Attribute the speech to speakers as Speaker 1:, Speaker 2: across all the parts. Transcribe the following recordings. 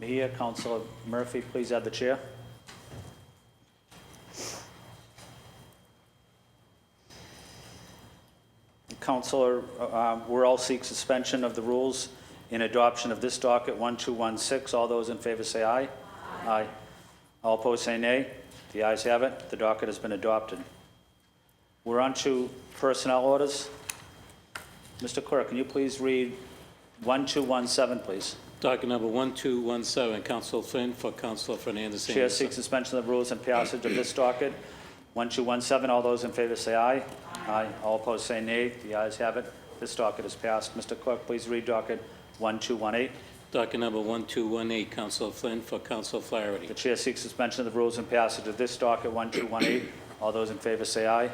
Speaker 1: here. Counselor Murphy, please add the chair. Counselor, uh, we all seek suspension of the rules in adoption of this docket 1216. All those in favor say aye. Aye. All opposed say nay. The ayes have it. The docket has been adopted. We're on to personnel orders. Mr. Clerk, can you please read 1217, please?
Speaker 2: Docket number 1217, Counsel Flynn for Counsel Fernandez
Speaker 1: Chair
Speaker 2: Anderson.
Speaker 1: seeks suspension of the rules and passage of this docket. 1217, all those in favor say aye. Aye. All opposed say nay. The ayes have it. This docket is passed. Mr. Clerk, please read docket 1218.
Speaker 2: Docket number 1218, Counsel Flynn for Counsel
Speaker 1: The
Speaker 2: Flaherty.
Speaker 1: chair seeks suspension of the rules and passage of this docket 1218. All those in favor say aye.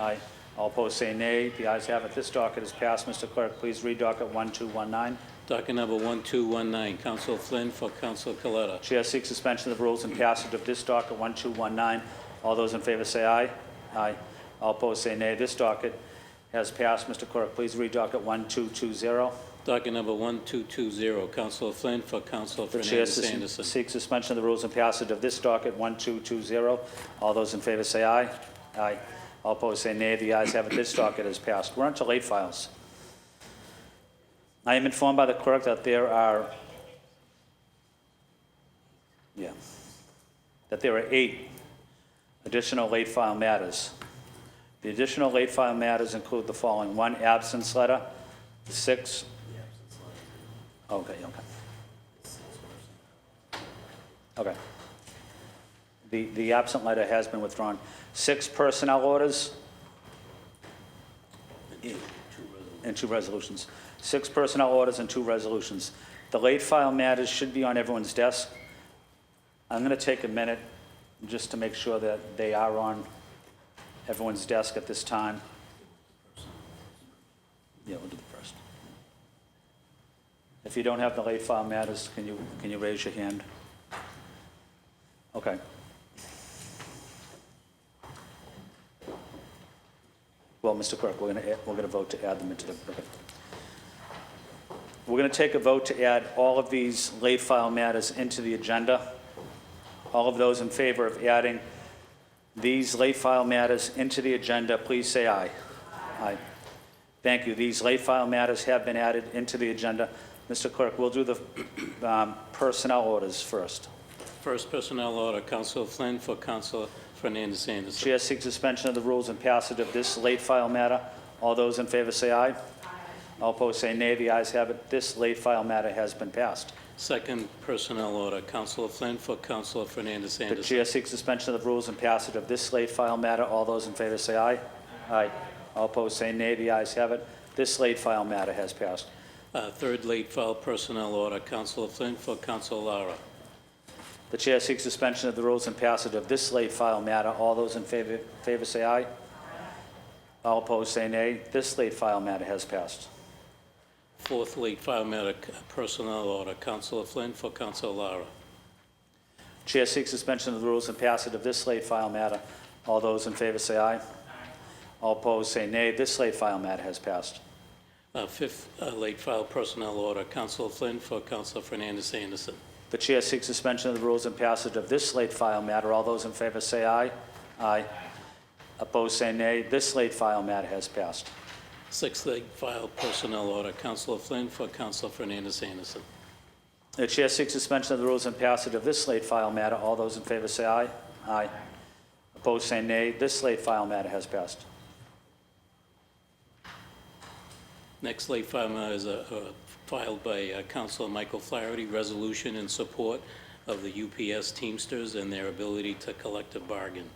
Speaker 1: Aye. All opposed say nay. The ayes have it. This docket is passed. Mr. Clerk, please read docket 1219.
Speaker 2: Docket number 1219, Counsel Flynn for Counsel Coletta.
Speaker 1: Chair seeks suspension of the rules and passage of this docket 1219. All those in favor say aye. Aye. All opposed say nay. This docket has passed. Mr. Clerk, please read docket 1220.
Speaker 2: Docket number 1220, Counsel Flynn for Counsel
Speaker 1: The chair
Speaker 2: Fernandez Anderson.
Speaker 1: sus- seeks suspension of the rules and passage of this docket 1220. All those in favor say aye. Aye. All opposed say nay. The ayes have it. This docket is passed. We're on to late files. I am informed by the clerk that there are, yeah, that there are eight additional late file matters. The additional late file matters include the following: one absence letter, six. Okay, okay. Okay. The, the absent letter has been withdrawn. Six personnel orders. And two resolutions. Six personnel orders and two resolutions. The late file matters should be on everyone's desk. I'm going to take a minute just to make sure that they are on everyone's desk at this time. Yeah, we'll do the first. If you don't have the late file matters, can you, can you raise your hand? Okay. Well, Mr. Clerk, we're going to, we're going to vote to add them into the, okay. We're going to take a vote to add all of these late file matters into the agenda. All of those in favor of adding these late file matters into the agenda, please say aye. Aye. Thank you. These late file matters have been added into the agenda. Mr. Clerk, we'll do the um, personnel orders first.
Speaker 2: First personnel order, Counsel Flynn for Counsel Fernandez Anderson.
Speaker 1: Chair seeks suspension of the rules and passage of this late file matter. All those in favor say aye. All opposed say nay. The ayes have it. This late file matter has been passed.
Speaker 2: Second personnel order, Counsel Flynn for Counsel Fernandez
Speaker 1: The
Speaker 2: Anderson.
Speaker 1: chair seeks suspension of the rules and passage of this late file matter. All those in favor say aye. Aye. All opposed say nay. The ayes have it. This late file matter has passed.
Speaker 2: Uh, Third late file personnel order, Counsel Flynn for Counsel Lara.
Speaker 1: The chair seeks suspension of the rules and passage of this late file matter. All those in favor favor say aye. All opposed say nay. This late file matter has passed.
Speaker 2: Fourth late file matter, c- personnel order, Counsel Flynn for Counsel Lara.
Speaker 1: Chair seeks suspension of the rules and passage of this late file matter. All those in favor say aye. All opposed say nay. This late file matter has passed.
Speaker 2: Uh, Fifth uh, late file personnel order, Counsel Flynn for Counsel Fernandez Anderson.
Speaker 1: The chair seeks suspension of the rules and passage of this late file matter. All those in favor say aye. Aye. Opposed say nay. This late file matter has passed.
Speaker 2: Sixth late file personnel order, Counsel Flynn for Counsel Fernandez Anderson.
Speaker 1: The chair seeks suspension of the rules and passage of this late file matter. All those in favor say aye. Aye. Opposed say nay. This late file matter has passed.
Speaker 2: Next late file matter is uh, uh, filed by uh, Counsel Michael Flaherty, resolution in support of the UPS Teamsters and their ability to collective bargain.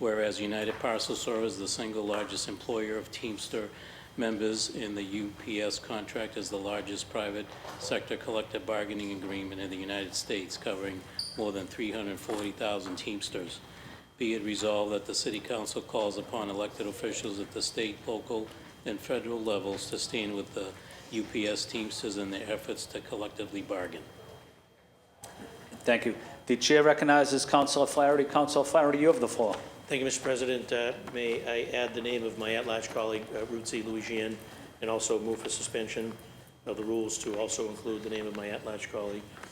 Speaker 2: Whereas United Parcel Service, the single largest employer of Teamster members in the UPS contract, is the largest private sector collective bargaining agreement in the United States covering more than 340,000 Teamsters. Be it resolved that the City Council calls upon elected officials at the state, local, and federal levels to stand with the UPS Teamsters in their efforts to collectively bargain.
Speaker 1: Thank you. The chair recognizes Councilor Flaherty. Councilor Flaherty, you have the floor.
Speaker 3: Thank you, Mr. President. Uh, May I add the name of my at-large colleague, uh, Ruth Louisian, and also move for suspension of the rules to also include the name of my at-large colleague, uh,